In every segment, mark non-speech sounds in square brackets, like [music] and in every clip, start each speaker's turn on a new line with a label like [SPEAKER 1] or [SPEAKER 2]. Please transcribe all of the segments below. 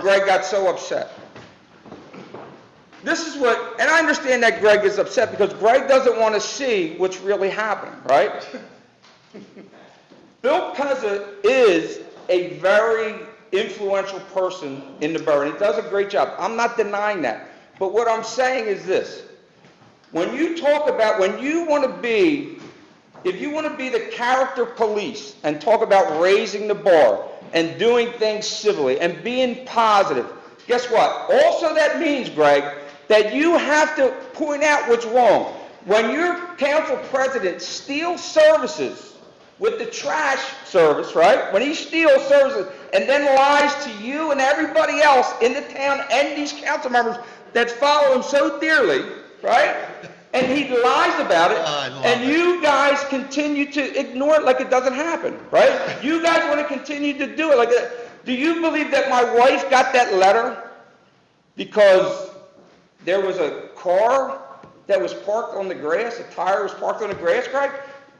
[SPEAKER 1] Greg got so upset. This is what, and I understand that Greg is upset because Greg doesn't want to see what's really happening, right? [laughs] Bill Pezza is a very influential person in the borough, and he does a great job. I'm not denying that. But what I'm saying is this. When you talk about, when you want to be, if you want to be the character police and talk about raising the bar and doing things civilly and being positive, guess what? Also, that means, Greg, that you have to point out what's wrong. When your council president steals services with the trash service, right? When he steals services and then lies to you and everybody else in the town and these council members that follow him so dearly, right? And he lies about it,
[SPEAKER 2] Oh, I love
[SPEAKER 1] and
[SPEAKER 2] it.
[SPEAKER 1] you guys continue to ignore it like it doesn't happen, right? You guys want to continue to do it like that. Do you believe that my wife got that letter because there was a car that was parked on the grass, a tire was parked on the grass, Greg?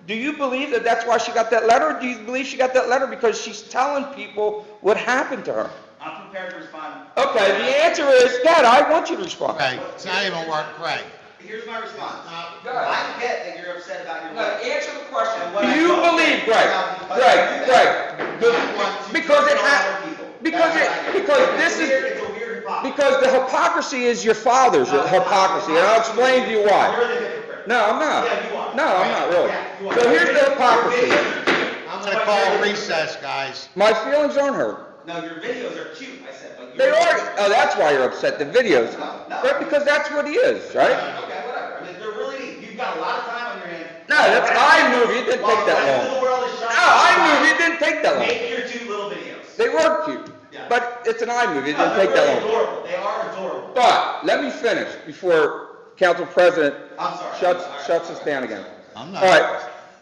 [SPEAKER 1] Do you believe that that's why she got that letter? Or do you believe she got that letter because she's telling people what happened to her?
[SPEAKER 3] I'm prepared to respond.
[SPEAKER 1] Okay, the answer is, Dad, I want you to respond.
[SPEAKER 2] Craig, it's not even work, Craig.
[SPEAKER 3] Here's my response.
[SPEAKER 1] Go ahead.
[SPEAKER 3] I get that you're upset about your
[SPEAKER 1] No,
[SPEAKER 3] wife.
[SPEAKER 1] answer the question.
[SPEAKER 3] What
[SPEAKER 1] Do
[SPEAKER 3] I
[SPEAKER 1] you
[SPEAKER 3] don't
[SPEAKER 1] believe,
[SPEAKER 3] think
[SPEAKER 1] Greg,
[SPEAKER 3] about the-
[SPEAKER 1] Greg, Greg, the-
[SPEAKER 3] I want to
[SPEAKER 1] because it
[SPEAKER 3] control
[SPEAKER 1] ha,
[SPEAKER 3] other people.
[SPEAKER 1] because
[SPEAKER 3] That's what I
[SPEAKER 1] it,
[SPEAKER 3] do.
[SPEAKER 1] because
[SPEAKER 3] It's
[SPEAKER 1] this
[SPEAKER 3] weird,
[SPEAKER 1] is,
[SPEAKER 3] It's a weird hypocrisy.
[SPEAKER 1] because the hypocrisy is your father's
[SPEAKER 3] No, it's not.
[SPEAKER 1] hypocrisy, and I'll explain to you
[SPEAKER 3] You're
[SPEAKER 1] why.
[SPEAKER 3] the hypocrite.
[SPEAKER 1] No, I'm not.
[SPEAKER 3] Yeah, you are.
[SPEAKER 1] No, I'm not
[SPEAKER 3] Yeah, you
[SPEAKER 1] really.
[SPEAKER 3] are.
[SPEAKER 1] So here's the
[SPEAKER 3] Your
[SPEAKER 1] hypocrisy.
[SPEAKER 3] videos-
[SPEAKER 2] I'm gonna call recess, guys.
[SPEAKER 1] My feelings aren't hurt.
[SPEAKER 3] No, your videos are cute, I said, but.
[SPEAKER 1] They
[SPEAKER 3] your-
[SPEAKER 1] are, oh, that's why you're upset, the videos.
[SPEAKER 3] No, no.
[SPEAKER 1] Right, because that's what he is, right?
[SPEAKER 3] Okay, whatever. I mean, they're really neat. You've got a lot of time on your hands.
[SPEAKER 1] No, that's iMovie, it didn't take that
[SPEAKER 3] While the rest of the
[SPEAKER 1] long.
[SPEAKER 3] world is
[SPEAKER 1] No,
[SPEAKER 3] shining.
[SPEAKER 1] iMovie, it didn't take that long.
[SPEAKER 3] Make your two little videos.
[SPEAKER 1] They were cute,
[SPEAKER 3] Yeah.
[SPEAKER 1] but it's an iMovie, it
[SPEAKER 3] No,
[SPEAKER 1] didn't
[SPEAKER 3] they're
[SPEAKER 1] take that
[SPEAKER 3] really
[SPEAKER 1] long.
[SPEAKER 3] adorable. They are adorable.
[SPEAKER 1] But let me finish before Council President
[SPEAKER 3] I'm sorry.
[SPEAKER 1] shuts,
[SPEAKER 3] All right.
[SPEAKER 1] shuts us down again.
[SPEAKER 2] I'm
[SPEAKER 1] All
[SPEAKER 2] not,
[SPEAKER 1] right,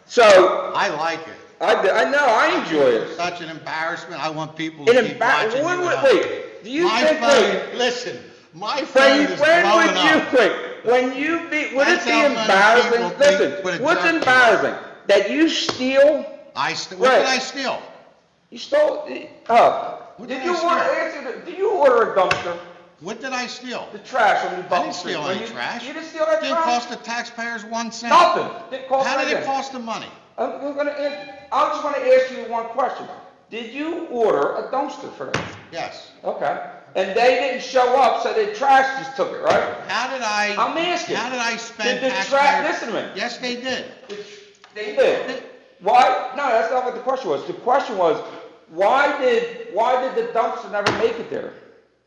[SPEAKER 1] so
[SPEAKER 2] I like it.
[SPEAKER 1] I, d- I know, I enjoy it.
[SPEAKER 2] Such an embarrassment. I want people to
[SPEAKER 1] It
[SPEAKER 2] keep
[SPEAKER 1] embarrassed,
[SPEAKER 2] watching
[SPEAKER 1] wait,
[SPEAKER 2] you. and
[SPEAKER 1] wait,
[SPEAKER 2] I-
[SPEAKER 1] wait, do you
[SPEAKER 2] My
[SPEAKER 1] think, that-
[SPEAKER 2] phone, listen, my phone
[SPEAKER 1] when,
[SPEAKER 2] is blowing
[SPEAKER 1] when would you,
[SPEAKER 2] up.
[SPEAKER 1] wait, when you be, would it
[SPEAKER 2] That's
[SPEAKER 1] be
[SPEAKER 2] how many
[SPEAKER 1] embarrassing?
[SPEAKER 2] people think what a
[SPEAKER 1] Listen, what's
[SPEAKER 2] jerk you are.
[SPEAKER 1] embarrassing? That you steal,
[SPEAKER 2] I, st- what did
[SPEAKER 1] Right.
[SPEAKER 2] I steal?
[SPEAKER 1] you stole, oh,
[SPEAKER 2] What
[SPEAKER 1] did
[SPEAKER 2] did
[SPEAKER 1] you
[SPEAKER 2] I
[SPEAKER 1] order,
[SPEAKER 2] steal?
[SPEAKER 1] answer, the- did you order a dumpster,
[SPEAKER 2] What did I steal?
[SPEAKER 1] the trash on the
[SPEAKER 2] I
[SPEAKER 1] Button
[SPEAKER 2] didn't
[SPEAKER 1] Street?
[SPEAKER 2] steal
[SPEAKER 1] When
[SPEAKER 2] any
[SPEAKER 1] you-
[SPEAKER 2] trash.
[SPEAKER 1] You didn't steal that
[SPEAKER 2] Didn't
[SPEAKER 1] trash?
[SPEAKER 2] cost the taxpayers one cent.
[SPEAKER 1] Nothing, didn't cost
[SPEAKER 2] How did it
[SPEAKER 1] anything.
[SPEAKER 2] cost the money?
[SPEAKER 1] I'm I'm gonna, ask- I just wanna ask you one question. Did you order a dumpster for them?
[SPEAKER 2] Yes.
[SPEAKER 1] Okay. And they didn't show up, so the trash just took it, right?
[SPEAKER 2] How did I?
[SPEAKER 1] I'm asking.
[SPEAKER 2] How did I spend
[SPEAKER 1] Did the
[SPEAKER 2] taxpayers?
[SPEAKER 1] trash, listen to me.
[SPEAKER 2] Yes, they did.
[SPEAKER 1] They did. Why, no, that's not what the question was. The question was, why did, why did the dumpster never make it there?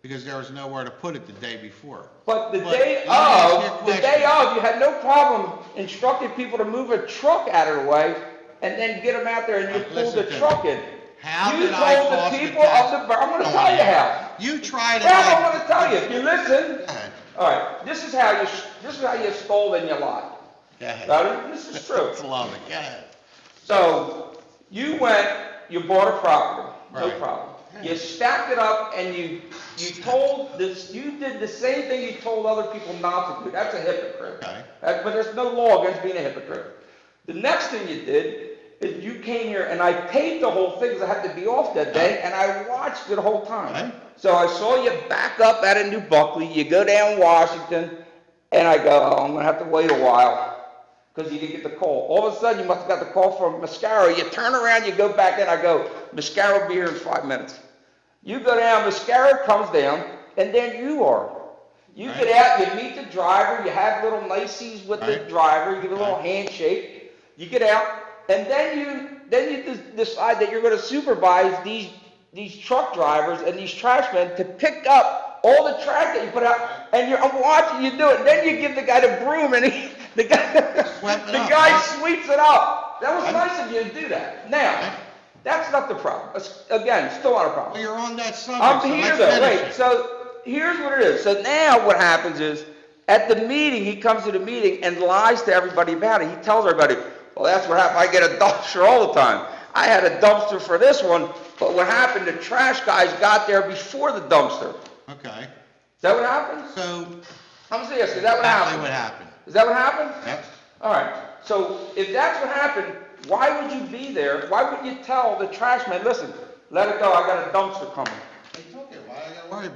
[SPEAKER 2] Because there was nowhere to put it the day before.
[SPEAKER 1] But the
[SPEAKER 2] But
[SPEAKER 1] day
[SPEAKER 2] let me ask you a
[SPEAKER 1] of, the
[SPEAKER 2] question.
[SPEAKER 1] day of, you had no problem instructing people to move a truck out of the way and then get them out there and you
[SPEAKER 2] Now,
[SPEAKER 1] pulled
[SPEAKER 2] listen
[SPEAKER 1] the
[SPEAKER 2] to me.
[SPEAKER 1] truck in.
[SPEAKER 2] How
[SPEAKER 1] You
[SPEAKER 2] did I
[SPEAKER 1] told the
[SPEAKER 2] cost the
[SPEAKER 1] people of
[SPEAKER 2] tax-
[SPEAKER 1] the bor- I'm gonna
[SPEAKER 2] Go
[SPEAKER 1] tell
[SPEAKER 2] on.
[SPEAKER 1] you how.
[SPEAKER 2] You tried to.
[SPEAKER 1] Now I'm
[SPEAKER 2] like-
[SPEAKER 1] gonna tell you, if you listen,
[SPEAKER 2] Go ahead.
[SPEAKER 1] all right, this is how you, sh- this is how you stole and you lied.
[SPEAKER 2] Go ahead.
[SPEAKER 1] Ready? This is true.
[SPEAKER 2] I love it, go ahead.
[SPEAKER 1] So you went, you bought a property, no
[SPEAKER 2] Right.
[SPEAKER 1] problem. You stacked it up and you, you told this, you did the same thing you told other people not to do. That's a hypocrite.
[SPEAKER 2] Okay.
[SPEAKER 1] That- But there's no law against being a hypocrite. The next thing you did is you came here and I paid the whole thing because I had to be off that day and I watched it the whole
[SPEAKER 2] Okay.
[SPEAKER 1] time. So I saw you back up out of New Buckley, you go down Washington, and I go, oh, I'm gonna have to wait a while because you didn't get the call. All of a sudden, you must have got the call from Mascaro. You turn around, you go back in. I go, Mascaro will be here in five minutes. You go down, Mascaro comes down, and then you are. You
[SPEAKER 2] Right.
[SPEAKER 1] get out, you meet the driver, you have little niceties with the
[SPEAKER 2] Right.
[SPEAKER 1] driver, you give a little
[SPEAKER 2] Right.
[SPEAKER 1] handshake. You get out, and then you then you de- decide that you're going to supervise these these truck drivers and these trash men to pick up all the trash that you put out. And you're I'm watching you do it. And then you give the guy the broom, and he, the guy [laughs]
[SPEAKER 2] Swept it
[SPEAKER 1] the
[SPEAKER 2] up,
[SPEAKER 1] guy
[SPEAKER 2] right?
[SPEAKER 1] sweeps it up. That was
[SPEAKER 2] Right.
[SPEAKER 1] nice of you to do that. Now,
[SPEAKER 2] Right.
[SPEAKER 1] that's not the problem. It's- Again, still not a problem.
[SPEAKER 2] Well, you're on that subject. so
[SPEAKER 1] I'm here
[SPEAKER 2] let's
[SPEAKER 1] though,
[SPEAKER 2] finish
[SPEAKER 1] wait,
[SPEAKER 2] it.
[SPEAKER 1] so here's what it is. So now what happens is, at the meeting, he comes to the meeting and lies to everybody about it. He tells everybody, well, that's what happened, I get a [laughs] dumpster all the time. I had a dumpster for this one, but what happened, the trash guys got there before the dumpster.
[SPEAKER 2] Okay,
[SPEAKER 1] Is that what happens?
[SPEAKER 2] so
[SPEAKER 1] I'm serious, is that what
[SPEAKER 2] exactly what
[SPEAKER 1] happened?
[SPEAKER 2] happened.
[SPEAKER 1] Is that what happened?
[SPEAKER 2] Yep.
[SPEAKER 1] All right, so if that's what happened, why would you be there? Why would you tell the trash man, listen, let it go, I got a dumpster coming?